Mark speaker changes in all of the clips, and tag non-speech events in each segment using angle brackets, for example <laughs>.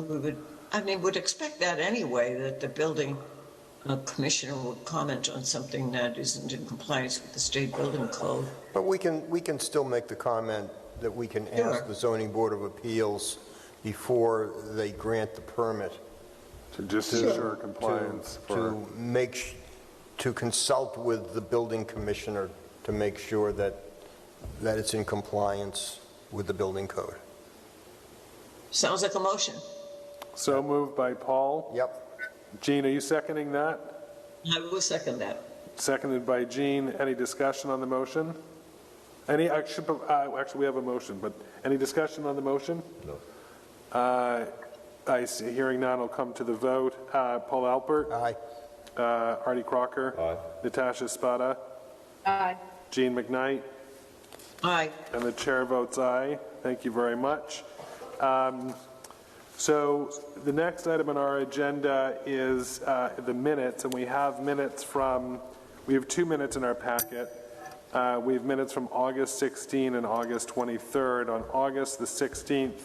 Speaker 1: we would, I mean, would expect that anyway, that the building uh, commissioner would comment on something that isn't in compliance with the state building code.
Speaker 2: But we can, we can still make the comment that we can ask
Speaker 1: Sure.
Speaker 2: the zoning board of appeals before they grant the permit.
Speaker 3: To just ensure compliance
Speaker 2: to-
Speaker 3: for,
Speaker 2: To make, sh- to consult with the building commissioner to make sure that, that it's in compliance with the building code.
Speaker 1: Sounds like a motion.
Speaker 3: so moved by Paul.
Speaker 2: Yep.
Speaker 3: Gene, are you seconding that?
Speaker 1: I will second that.
Speaker 3: Seconded by Gene. Any discussion on the motion? Any, actually, uh, actually, we have a motion, but any discussion on the motion? No. I see, hearing none, I'll come to the vote. Uh, Paul Alpert,
Speaker 2: Aye.
Speaker 3: uh, Artie Crocker. Natasha Spada.
Speaker 4: Aye.
Speaker 3: Gene McKnight.
Speaker 1: Aye.
Speaker 3: And the chair votes aye. Thank you very much. Um, So the next item on our agenda is uh, the minutes, and we have minutes from, we have two minutes in our packet. Uh, We have minutes from August 16 and August 23rd. On August the 16th,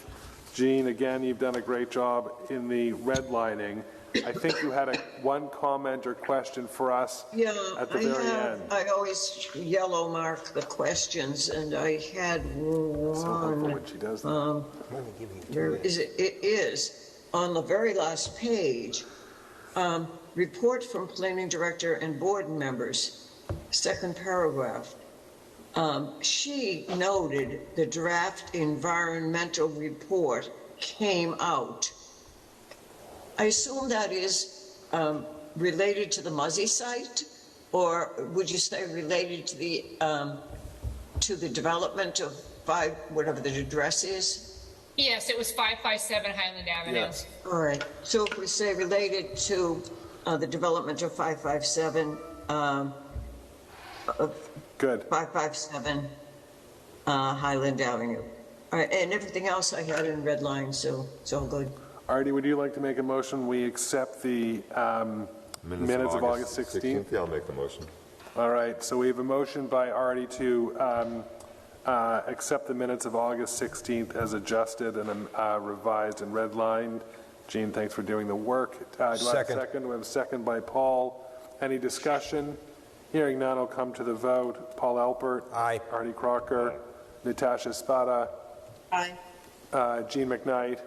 Speaker 3: Gene, again, you've done a great job in the redlining. I think you had a- one comment or question for us
Speaker 1: Yeah,
Speaker 3: at the
Speaker 1: I
Speaker 3: very
Speaker 1: have,
Speaker 3: end.
Speaker 1: I always yellow mark the questions, and I had
Speaker 3: So helpful
Speaker 1: one,
Speaker 3: when she does that.
Speaker 1: um,
Speaker 2: Let me give you two
Speaker 1: There
Speaker 2: minutes.
Speaker 1: is, it is, on the very last page, um, report from planning director and board members, second paragraph. Um, She noted the draft environmental report came out. I assume that is um, related to the Muzzy site? Or would you say related to the, um, to the development of five, whatever the address is?
Speaker 4: Yes, it was 557 Highland Avenue.
Speaker 3: Yes.
Speaker 1: All right, so if we say related to uh, the development of 557, um,
Speaker 3: Good.
Speaker 1: 557 uh, Highland Avenue. All right, and everything else I had in red line, so it's all good.
Speaker 3: Artie, would you like to make a motion, we accept the um, minutes of August 16th?
Speaker 5: Yeah, I'll make the motion.
Speaker 3: All right, so we have a motion by Artie to um, uh, accept the minutes of August 16th as adjusted and um, uh, revised and redlined. Gene, thanks for doing the work. Uh, Do I have a
Speaker 2: Second.
Speaker 3: second? We have a second by Paul. Any discussion? Hearing none, I'll come to the vote. Paul Alpert.
Speaker 2: Aye.
Speaker 3: Artie Crocker. Natasha Spada.
Speaker 1: Aye.
Speaker 3: uh, Gene McKnight.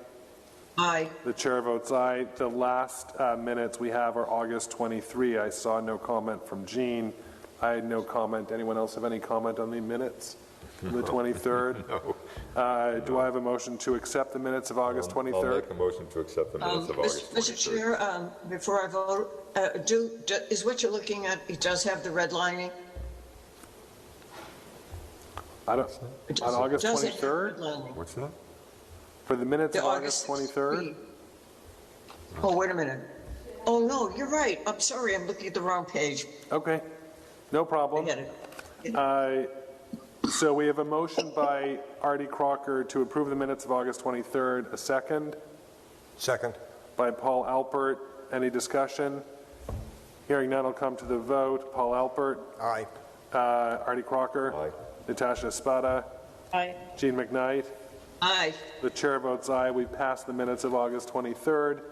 Speaker 1: Aye,
Speaker 3: The chair votes aye. The last uh, minutes we have are August 23. I saw no comment from Jean. I had no comment. Anyone else have any comment on the minutes? from The 23rd?
Speaker 5: <laughs> No.
Speaker 3: Uh, Do I have a motion to accept the minutes of August
Speaker 5: I'll
Speaker 3: 23rd?
Speaker 5: make a motion to accept the
Speaker 1: Um,
Speaker 5: minutes of August
Speaker 1: Mr.
Speaker 5: 23rd.
Speaker 1: Mr. Chair, um, before I vote, uh, do, do- is what you're looking at, it does have the red lining?
Speaker 3: I don't- On August
Speaker 1: Does it have
Speaker 3: 23rd?
Speaker 1: redlining?
Speaker 5: What's that?
Speaker 3: For the minutes
Speaker 1: The
Speaker 3: of August 23rd?
Speaker 1: 23rd? Oh, wait a minute. Oh, no, you're right. I'm sorry, I'm looking at the wrong page.
Speaker 3: Okay, no
Speaker 1: I
Speaker 3: problem.
Speaker 1: get it.
Speaker 3: Uh, So we have a motion by Artie Crocker to approve the minutes of August 23rd. A second?
Speaker 2: Second.
Speaker 3: by Paul Alpert. Any discussion? Hearing none, I'll come to the vote. Paul Alpert,
Speaker 2: Aye.
Speaker 3: uh, Artie Crocker.
Speaker 5: Aye.
Speaker 3: Natasha Spada.
Speaker 4: Aye.
Speaker 3: Gene McKnight.
Speaker 1: Aye.
Speaker 3: The chair votes aye. We pass the minutes of August 23rd.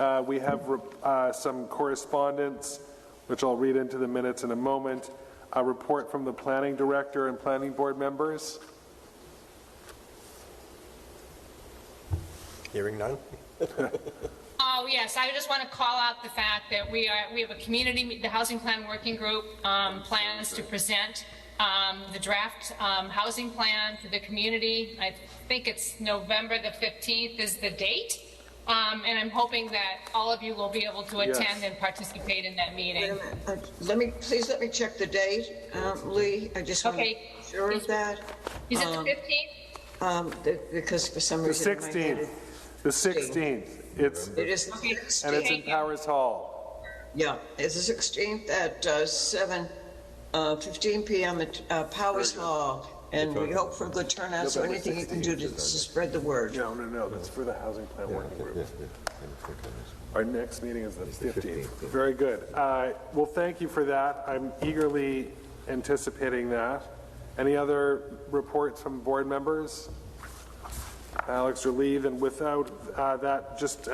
Speaker 3: Uh, We have uh, some correspondence, which I'll read into the minutes in a moment. A report from the planning director and planning board members.
Speaker 2: Hearing none?
Speaker 4: Oh, yes, I just want to call out the fact that we are, we have a community, me- the Housing Plan Working Group um, plans to present um, the draft um, housing plan to the community. I think it's November the 15th is the date, Um, and I'm hoping that all of you will be able to
Speaker 3: Yes.
Speaker 4: attend and participate in that
Speaker 1: Wait a
Speaker 4: meeting.
Speaker 1: minute. Uh, Let me, please let me check the date, uh, Lee. I just want to
Speaker 4: Okay.
Speaker 1: be sure of that,
Speaker 4: Is it the 15th?
Speaker 1: um, th- because for some
Speaker 3: The
Speaker 1: reason. in my head
Speaker 3: 16th, the 16th. It's,
Speaker 1: It is the
Speaker 3: and it's
Speaker 1: 16th,
Speaker 3: in Powers Hall.
Speaker 1: yeah, it's the 16th at uh, 7, uh, 15 PM at uh, Powers Hall. And we hope for a good turnout, so
Speaker 3: November
Speaker 1: anything you can do to to spread the word.
Speaker 3: No, no, no, that's for the housing plan working group.
Speaker 5: Yeah, yeah, yeah, I think that is-
Speaker 3: Our next meeting is the
Speaker 5: the
Speaker 3: 15th.
Speaker 5: 15th, yeah.
Speaker 3: Very good. Uh, Well, thank you for that. I'm eagerly anticipating that. Any other reports from board members? Alex or leave, and without uh, that, just